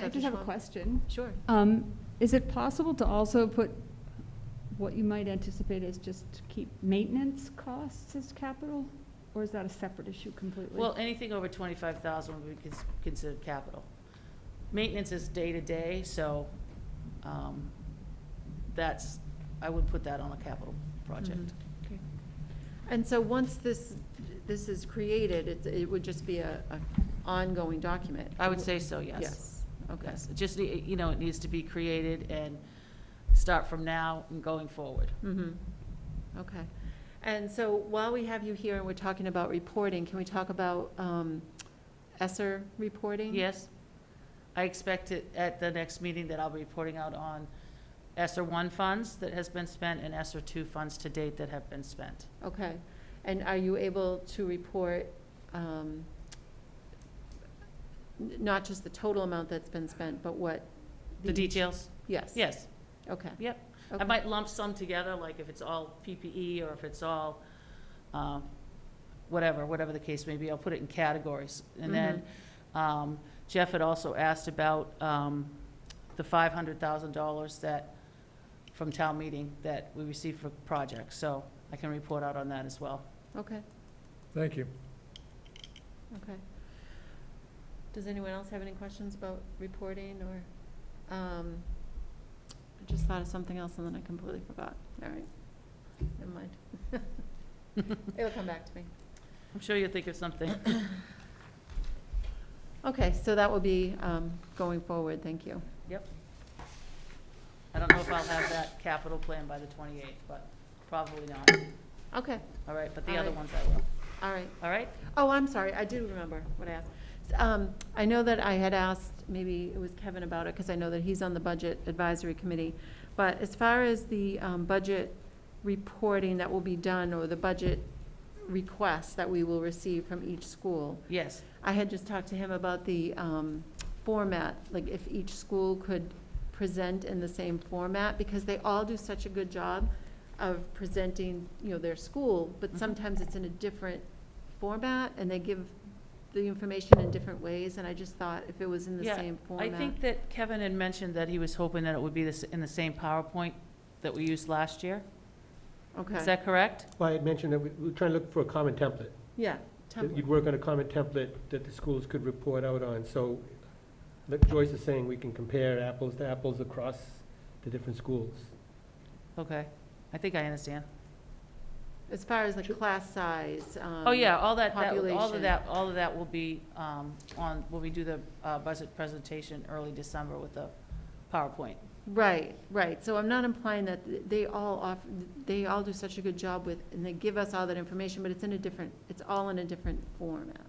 I just have a question. Sure. Um, Is it possible to also put what you might anticipate as just keep maintenance costs as capital? Or is that a separate issue completely? Well, anything over twenty-five thousand would be cons- considered capital. Maintenance is day-to-day, so, um, that's, I would put that on a capital project. Okay. And so once this, this is created, it's, it would just be a, a ongoing document? I would say so, yes. Yes, okay. Yes, it just, nee- you know, it needs to be created and start from now and going forward. Mm-hmm, okay. And so while we have you here and we're talking about reporting, can we talk about, um, ESER reporting? Yes? I expect it at the next meeting that I'll be reporting out on ESER one funds that has been spent and ESER two funds to date that have been spent. Okay, and are you able to report, um, n- not just the total amount that's been spent, but what? The details? Yes. Yes. Okay. Yep. I okay. might lump some together, like if it's all PPE or if it's all, um, whatever, whatever the case may be, I'll put it in categories. Mm-hmm. And then um, Jeff had also asked about um, the $500,000 that, from town meeting, that we received for projects. So I can report out on that as well. Mm-hmm. Okay, Thank you. okay. Does anyone else have any questions about reporting or, um, I just thought of something else and then I completely forgot. All right, never mind. It'll come back to me. I'm sure you'll think of something. Okay, so that will be, um, going forward, thank you. I don't know if I'll have that capital plan by the 28th, but probably not. Okay, All right, but the All other right. ones I will. all right. All right? Oh, I'm sorry, I do remember what I asked. S- Um, I know that I had asked, maybe it was Kevin about it, because I know that he's on the Budget Advisory Committee. But as far as the, um, budget reporting that will be done, or the budget requests that we will receive from each school, Yes. I had just talked to him about the, um, format, like if each school could present in the same format, because they all do such a good job of presenting, you know, their school, but Mhm. sometimes it's in a different format, and they give the information in different ways, and I just thought if it was in the Yeah, same I format. think that Kevin had mentioned that he was hoping that it would be this, in the same PowerPoint that we used last year. Is Okay, that correct? Well, I had mentioned that we- we we're trying to look for a common template. yeah, that You'd template, work on a common template that the schools could report out on. So, like Joyce is saying, we can compare apples to apples across the different schools. Okay, I think I understand. as far as the class size, um. Oh, yeah, all that, that, all of population. that, all of that will be um, on, when we do the uh, budget presentation early December with the PowerPoint. Right, right, so I'm not implying that th- they all off, they all do such a good job with, and they give us all that information, but it's in a different, it's all in a different format.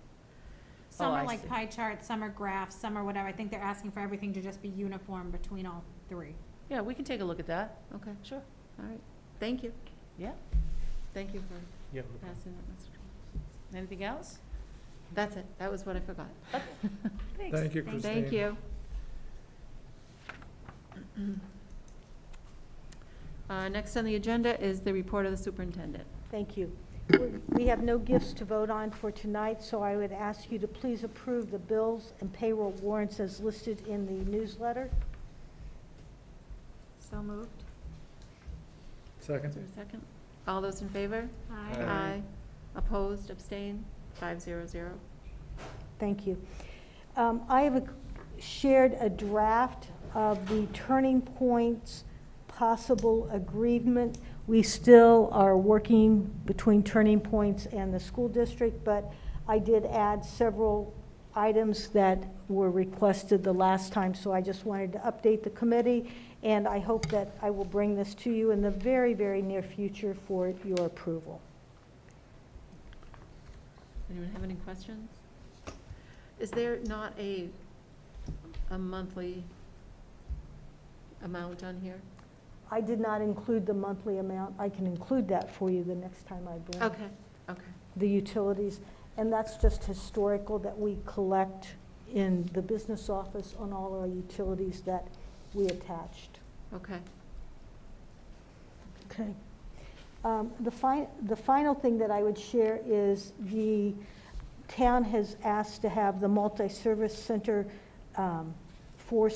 Some Oh, I are like see. pie charts, some are graphs, some are whatever. I think they're asking for everything to just be uniform between all three. Yeah, we can take a look at that. Okay, Sure. all right, thank you. Yeah. Thank you for Yeah. passing that message. Anything else? That's it, that was what I forgot. Thanks. Thank you, Christine. Thank you. Uh, next on the agenda is the report of the superintendent. Thank you. We have no gifts to vote on for tonight, so I would ask you to please approve the bills and payroll warrants as listed in the newsletter. So moved. Is there Second. a second? All those in favor? Aye. Opposed, abstained, five zero zero. Thank you. Um, I have a- shared a draft of the Turning Point's possible agreement. We still are working between Turning Points and the school district, but I did add several items that were requested the last time, so I just wanted to update the committee, and I hope that I will bring this to you in the very, very near future for your approval. Anyone have any questions? Is there not a, a monthly amount on here? I did not include the monthly amount. I can include that for you the next time I bring Okay, okay, the utilities. And that's just historical that we collect in the business office on all our utilities that we attached. okay. Okay. Um, The fi, the final thing that I would share is the town has asked to have the multi-service center um, for